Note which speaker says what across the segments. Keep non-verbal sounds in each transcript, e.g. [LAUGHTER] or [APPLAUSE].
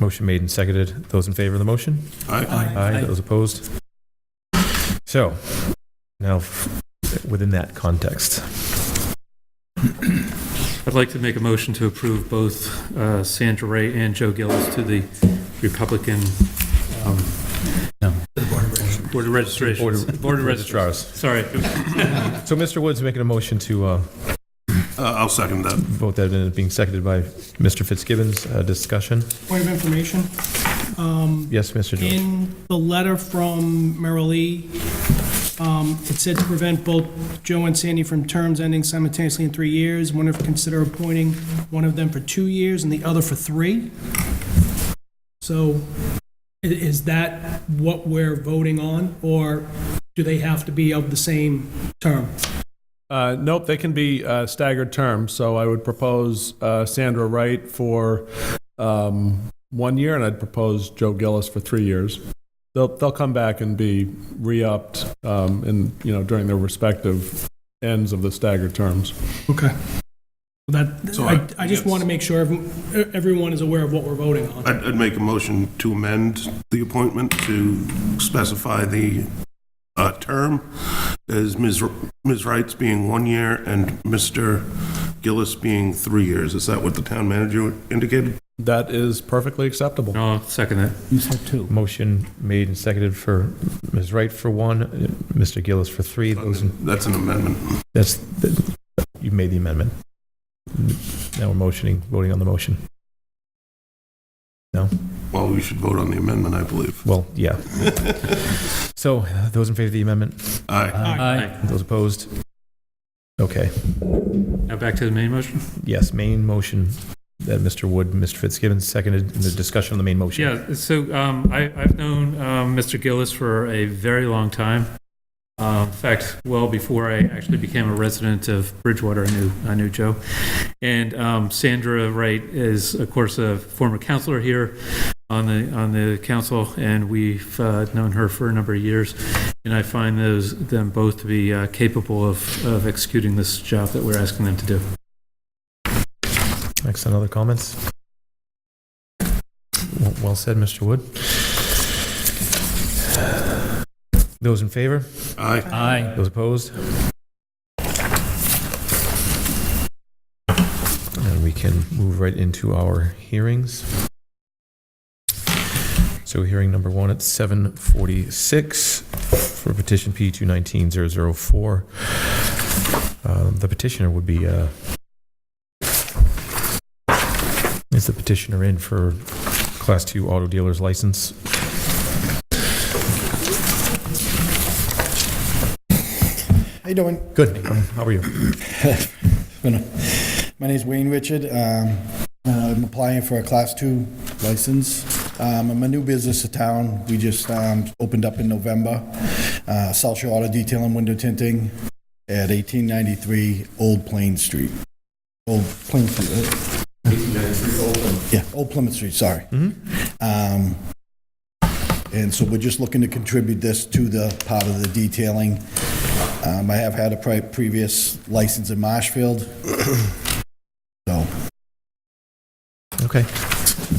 Speaker 1: Motion made and seconded. Those in favor of the motion?
Speaker 2: Aye.
Speaker 1: Aye. Those opposed?
Speaker 3: Uh,
Speaker 1: So, now, within that context,
Speaker 2: I'd like to make a motion to approve both uh, Sandra Ray and Joe Gillis to the Republican um, Board of
Speaker 1: Board
Speaker 2: Registrations.
Speaker 1: of-
Speaker 2: Board of Registrars.
Speaker 1: registrars.
Speaker 2: Sorry.
Speaker 1: So Mr. Woods making a motion to uh,
Speaker 3: Uh, I'll second that.
Speaker 1: vote that in, being seconded by Mr. Fitzgibbons. Uh, Discussion?
Speaker 4: Point of information,
Speaker 1: Yes, Mr. George?
Speaker 4: in the letter from Merrill Lee, um, it said to prevent both Joe and Sandy from terms ending simultaneously in three years, one of, consider appointing one of them for two years and the other for three. So i- is that what we're voting on, or do they have to be of the same term?
Speaker 5: Uh, Nope, they can be uh, staggered terms, so I would propose uh, Sandra Wright for um, one year, and I'd propose Joe Gillis for three years. They'll, they'll come back and be re-upped um, in, you know, during their respective ends of the staggered terms.
Speaker 4: Okay. That,
Speaker 3: So
Speaker 4: I,
Speaker 3: I-
Speaker 4: I just want to make sure everyone- everyone is aware of what we're voting on.
Speaker 3: I'd, I'd make a motion to amend the appointment to specify the uh, term as Ms. R- Ms. Wright's being one year and Mr. Gillis being three years. Is that what the town manager indicated?
Speaker 5: That is perfectly acceptable.
Speaker 2: No, I'll second that.
Speaker 6: You said two.
Speaker 1: Motion made and seconded for Ms. Wright for one, uh, Mr. Gillis for three. Those in-
Speaker 3: That's an amendment.
Speaker 1: That's, that- you made the amendment. Now we're motioning, voting on the motion.
Speaker 3: Well, we should vote on the amendment, I
Speaker 1: [LAUGHS]
Speaker 3: believe.
Speaker 1: Well, yeah. So uh, those in favor of the amendment?
Speaker 3: Aye.
Speaker 2: Aye.
Speaker 1: Those opposed? Okay,
Speaker 2: Now back to the main motion?
Speaker 1: yes, main motion that Mr. Wood, Mr. Fitzgibbons seconded in the discussion on the main motion.
Speaker 2: Yeah, so um, I, I've known um, Mr. Gillis for a very long time. Uh, in fact, well before I actually became a resident of Bridgewater, I knew I knew Joe. And um, Sandra Wright is, of course, a former counselor here on the on the council, and we've uh, known her for a number of years. And I find those them both to be uh, capable of, of executing this job that we're asking them to do.
Speaker 1: Excellent, other comments? Well- Well said, Mr. Wood. Those in favor?
Speaker 3: Aye.
Speaker 6: Aye.
Speaker 1: Those opposed? And we can move right into our hearings. So hearing number one at 7:46 for petition P 219-004. Uh, The petitioner would be, uh, is the petitioner in for Class 2 Auto Dealer's License?
Speaker 7: How you doing?
Speaker 1: Good. um, How are you?
Speaker 7: My name's Wayne Richard. Um, uh, I'm applying for a Class 2 license. Um, I'm a new business to town. We just um, opened up in November. Uh, South Shore Auto Detail and Window Tinting at 1893 Old Plain Street. Old Plain Street, right? 1893 Old Plymouth. Yeah, Old Plymouth Street, sorry. Um, And so we're just looking to contribute this to the part of the detailing. Um, I have had a pri- previous license in Marshfield, so,
Speaker 1: Okay.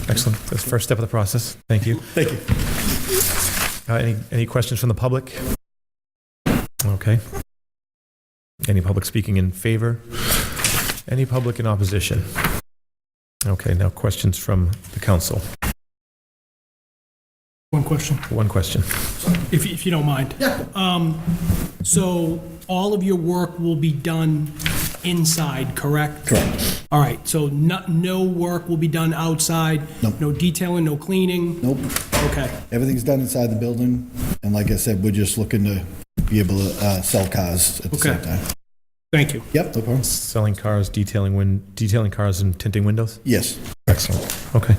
Speaker 1: Excellent. That's the first step of the process. [LAUGHS] Thank you.
Speaker 7: thank you.
Speaker 1: Uh, Any, any questions from the public? Okay. Any public speaking in favor? Any public in opposition? Okay, now questions from the council.
Speaker 4: One question.
Speaker 1: One question.
Speaker 4: if you, if you don't mind. Yeah. Um, so all of your work will be done inside, correct?
Speaker 7: Correct.
Speaker 4: All right, so no, no work will be done outside?
Speaker 7: Nope.
Speaker 4: No detailing, no cleaning?
Speaker 7: Nope,
Speaker 4: Okay,
Speaker 7: everything's done inside the building, and like I said, we're just looking to be able to uh, sell cars at the same
Speaker 4: Okay.
Speaker 7: time.
Speaker 4: thank you.
Speaker 7: Yep, no problem.
Speaker 1: Selling cars, detailing win, detailing cars and tinting windows?
Speaker 7: Yes.
Speaker 1: Excellent. Okay.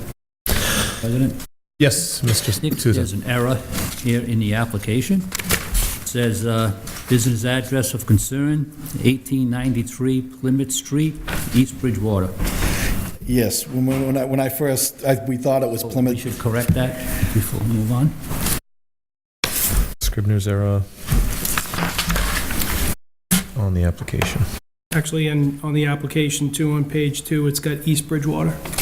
Speaker 6: President,
Speaker 1: Yes, Mr.
Speaker 6: Nick,
Speaker 1: Souza.
Speaker 6: there's an error here in the application. It says, uh, business address of concern, 1893 Plymouth Street, East Bridgewater. Oh,
Speaker 7: Yes, when, when when I, when I first, I, we thought it
Speaker 2: Oh,
Speaker 7: was
Speaker 6: We
Speaker 7: Plymouth,
Speaker 6: should correct that before we move on.
Speaker 1: Scribner's error on the application.
Speaker 4: Actually, and on the application too, on page two, it's got East Bridgewater.